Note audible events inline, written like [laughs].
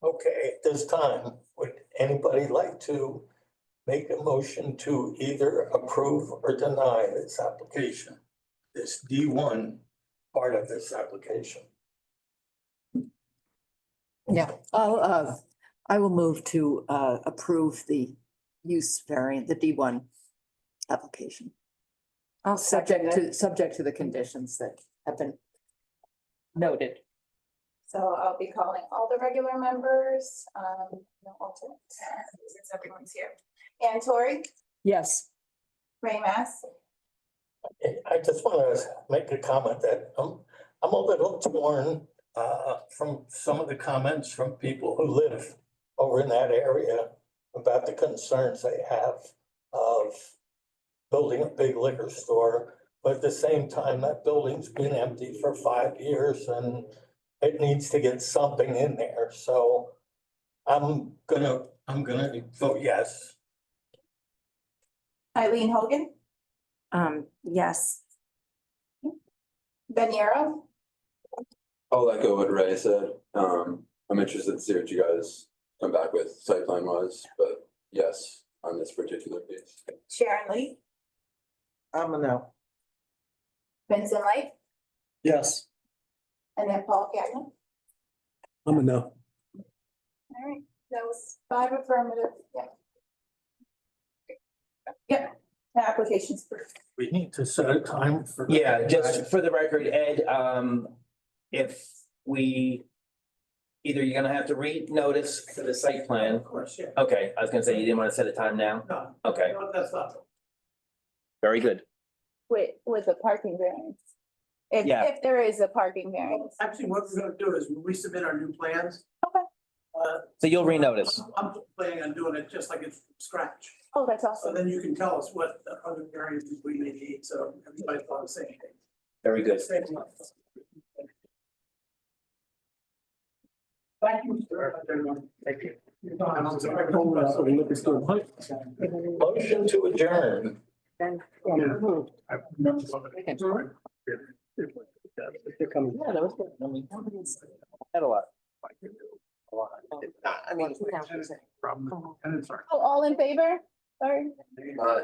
Okay, at this time, would anybody like to make a motion to either approve or deny this application? This D one part of this application? Yeah, I'll, uh, I will move to, uh, approve the use variant, the D one application. I'll second Subject it. to, subject to the conditions that have been noted. So I'll be calling all the regular members, um, no alternates, [laughs] since everyone's here. Ann Tori, Yes. Ray Mass, I- I just want to make a comment that I'm, I'm a little torn uh, from some of the comments from people who live over in that area about the concerns they have of building a big liquor store, but at the same time, that building's been empty for five years and it needs to get something in there. So I'm gonna, I'm gonna vote yes. Eileen Hogan, Um, yes, Ben Yarrow, I'll echo what Ray said. Um, I'm interested to see what you guys come back with site plan wise, but yes, on this particular piece. Sharon Lee, I'm a no. Vincent Light, Yes. and then Paul Gagnon. I'm a no. All right, that was five affirmative, yeah. Yeah, the application's approved. We need to set a time for. Yeah, just for the record, Ed, um, if we. Either you're gonna have to re-notice for the site plan. Of course, yeah. Okay, I was gonna say you didn't wanna set a time now. No, Okay, no, that's not. very good. With, with a parking variance. If, Yeah. if there is a parking variance. Actually, what we're gonna do is when we submit our new plans. Okay. Uh, So you'll re-notice. I'm planning on doing it just like it's from scratch. Oh, that's So awesome. then you can tell us what the other areas we may need, so everybody's on the same page. Very good. Thank you, sir. Thank you. I'm sorry. Motion to adjourn. hmm, Yeah, that was good. I mean, nobody's- Had a lot. I mean, uh, it's Yeah. from, and it's. Oh, All in favor? Sorry.